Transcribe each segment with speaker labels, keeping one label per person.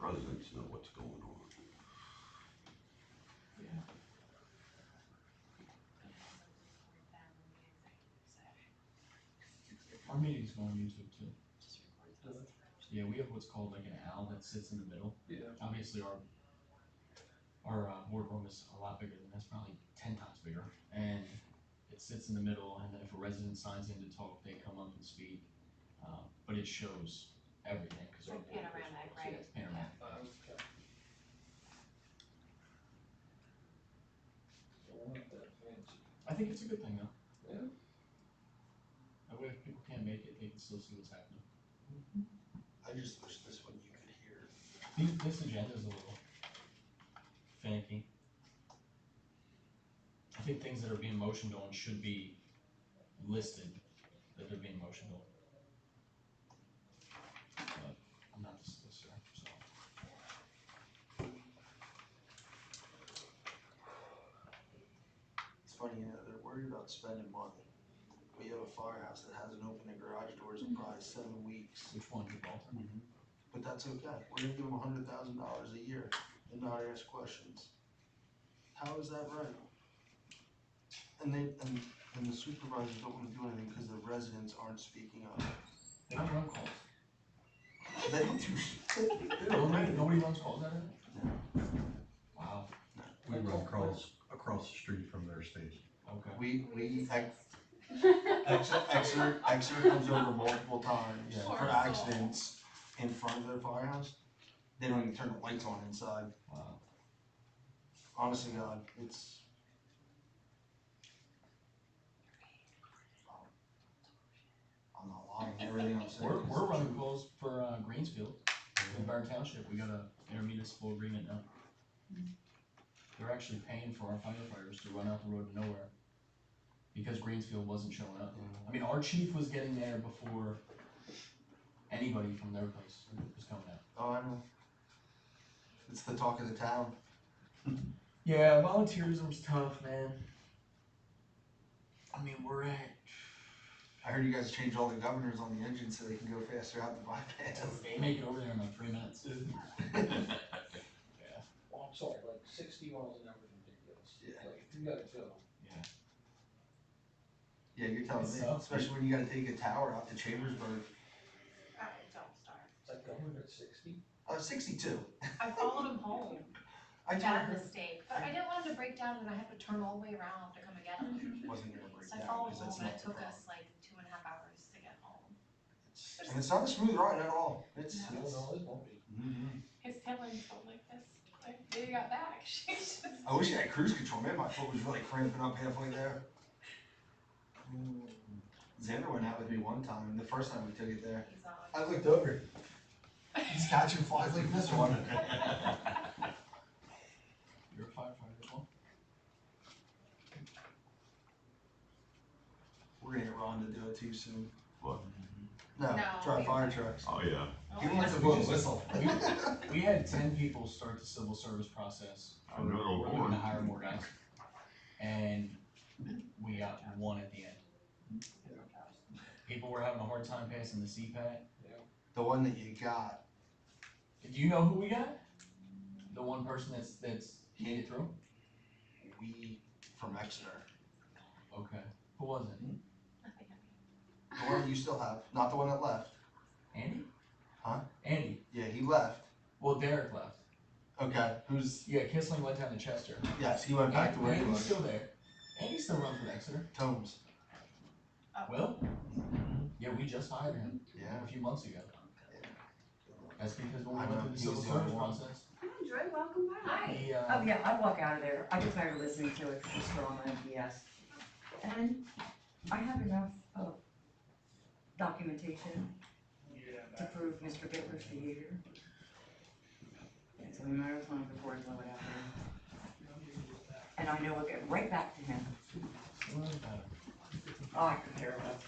Speaker 1: residents know what's going on.
Speaker 2: Our meeting's go on YouTube too. Yeah, we have what's called like an owl that sits in the middle.
Speaker 3: Yeah.
Speaker 2: Obviously, our, our uh, boardroom is a lot bigger than this, probably ten times bigger. And it sits in the middle, and then if a resident signs in to talk, they come up and speak. Uh, But it shows everything, because our
Speaker 4: Like
Speaker 2: board is-
Speaker 4: panoramic,
Speaker 2: yeah, it's panoramic.
Speaker 5: Uh,
Speaker 2: I think it's a good thing though.
Speaker 3: Yeah.
Speaker 2: That way if people can't make it, they can still see what's happening.
Speaker 5: I just wish this one you could hear.
Speaker 2: These, this agenda's a little finicky. I think things that are being motioned on should be listed that they're being motioned on. But I'm Uh, not the solicitor, so.
Speaker 5: It's funny, you know, they're worried about spending money. We have a firehouse that hasn't opened the garage doors in probably seven weeks,
Speaker 2: Which one, Gibraltar?
Speaker 5: but that's okay. We're gonna give them a hundred thousand dollars a year and not ask questions. How is that right? And they, and, and the supervisors don't wanna do anything because the residents aren't speaking up.
Speaker 2: They don't run calls.
Speaker 5: They don't do shit. They don't
Speaker 2: Nobody,
Speaker 5: do
Speaker 2: nobody runs calls out of it?
Speaker 5: No.
Speaker 2: Wow,
Speaker 6: We run across, across the street from their station.
Speaker 2: okay.
Speaker 5: We, we, ex- Exeter, Exeter, Exeter comes over multiple times
Speaker 2: Yeah.
Speaker 5: for accidents in front of their firehouse. They don't even turn the lights on inside.
Speaker 2: Wow.
Speaker 5: Honestly, God, it's. I'm not lying, everything I'm saying.
Speaker 2: We're,
Speaker 5: is
Speaker 2: we're
Speaker 5: the
Speaker 2: running
Speaker 5: truth.
Speaker 2: calls for, uh, Greensfield, in Byron Township, we got a intermunicipal agreement now. They're actually paying for our firefighters to run out the road to nowhere, because Greensfield wasn't showing up. I mean, our chief was getting there before anybody from their place was coming out.
Speaker 5: Oh, I know. It's the talk of the town.
Speaker 2: Yeah, volunteerism's tough, man. I mean, we're at.
Speaker 5: I heard you guys changed all the governors on the engine so they can go faster out the bypass.
Speaker 2: They make it over there in like three minutes. Yeah.
Speaker 3: Well, Oh, I'm sorry, like sixty miles an hour is ridiculous.
Speaker 5: Yeah.
Speaker 3: Like, if you gotta go.
Speaker 5: Yeah, you're telling
Speaker 2: It's
Speaker 5: me,
Speaker 2: tough.
Speaker 5: especially when you gotta take a tower out to Chambersburg.
Speaker 4: Alright, don't start.
Speaker 3: It's like a hundred sixty.
Speaker 5: Uh, sixty-two.
Speaker 4: I followed him home,
Speaker 5: I told
Speaker 4: bad
Speaker 5: her.
Speaker 4: mistake, but I didn't want him to break down and I had to turn all the way around to come and get him.
Speaker 5: Wasn't gonna break
Speaker 4: So I
Speaker 5: down,
Speaker 4: followed him home
Speaker 5: 'cause that's
Speaker 4: and it
Speaker 5: not the
Speaker 4: took
Speaker 5: problem.
Speaker 4: us like two and a half hours to get home.
Speaker 5: And it's not a smooth ride at all, it's,
Speaker 4: No.
Speaker 3: No,
Speaker 5: it's.
Speaker 3: no, it won't be.
Speaker 5: Mhm.
Speaker 4: His siblings don't like this, like, they got back, she just.
Speaker 5: I wish I had cruise control, man, my foot was really cramping up halfway there. Mm-hmm. Xander went out with me one time, the first time we took it there,
Speaker 4: He's on.
Speaker 5: I looked over, he's catching flies like this one.
Speaker 2: You're a firefighter as well?
Speaker 5: We're gonna get Ron to do it too soon.
Speaker 1: What?
Speaker 2: Mm-hmm.
Speaker 5: No,
Speaker 4: No,
Speaker 5: try
Speaker 4: we-
Speaker 5: fire trucks.
Speaker 1: Oh, yeah.
Speaker 5: He
Speaker 4: Oh,
Speaker 5: wants to blow a whistle.
Speaker 2: We had ten people start the civil service process.
Speaker 1: I know the
Speaker 2: We're looking
Speaker 1: board.
Speaker 2: to hire more guys. And we got one at the end. People were having a hard time passing the CPAT.
Speaker 5: The one that you got,
Speaker 2: Do you know who we got? The one person that's, that's made it through?
Speaker 5: we, from Exeter,
Speaker 2: Okay. Who was it?
Speaker 5: the one you still have, not the one that left,
Speaker 2: Andy?
Speaker 5: Huh?
Speaker 2: Andy.
Speaker 5: yeah, he left,
Speaker 2: Well, Derek left.
Speaker 5: okay, who's,
Speaker 2: Yeah, Kissling went down to Chester.
Speaker 5: yes, he went back to where he
Speaker 2: Andy's
Speaker 5: was,
Speaker 2: still there. Andy's still running for Exeter.
Speaker 5: Tomes,
Speaker 4: Oh.
Speaker 2: Will? Yeah, we just hired him
Speaker 5: yeah.
Speaker 2: a few months ago. That's because when we
Speaker 5: I
Speaker 2: went
Speaker 5: know,
Speaker 2: through the
Speaker 5: he
Speaker 2: civil
Speaker 5: was the only
Speaker 2: service
Speaker 5: one.
Speaker 2: process,
Speaker 7: Hi, Drew, welcome back.
Speaker 4: Hi.
Speaker 2: he, uh,
Speaker 7: Oh, yeah, I'd walk out of there. I get tired of listening to it, it's drama and BS. And I have enough of documentation to prove Mr. Bittler's behavior. It's only a matter of time before I blow it out there. And I know I'll get right back to him.
Speaker 2: Well, it matter.
Speaker 7: Oh, I could care less.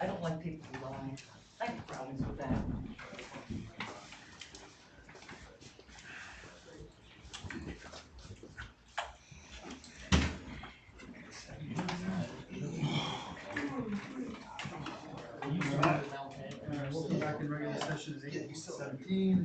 Speaker 7: I don't like people lying. I have problems with that.
Speaker 2: Can you remember that?
Speaker 3: All right, we'll come back in regular session at
Speaker 5: Yeah,
Speaker 3: eight
Speaker 5: you still have-
Speaker 3: seventeen.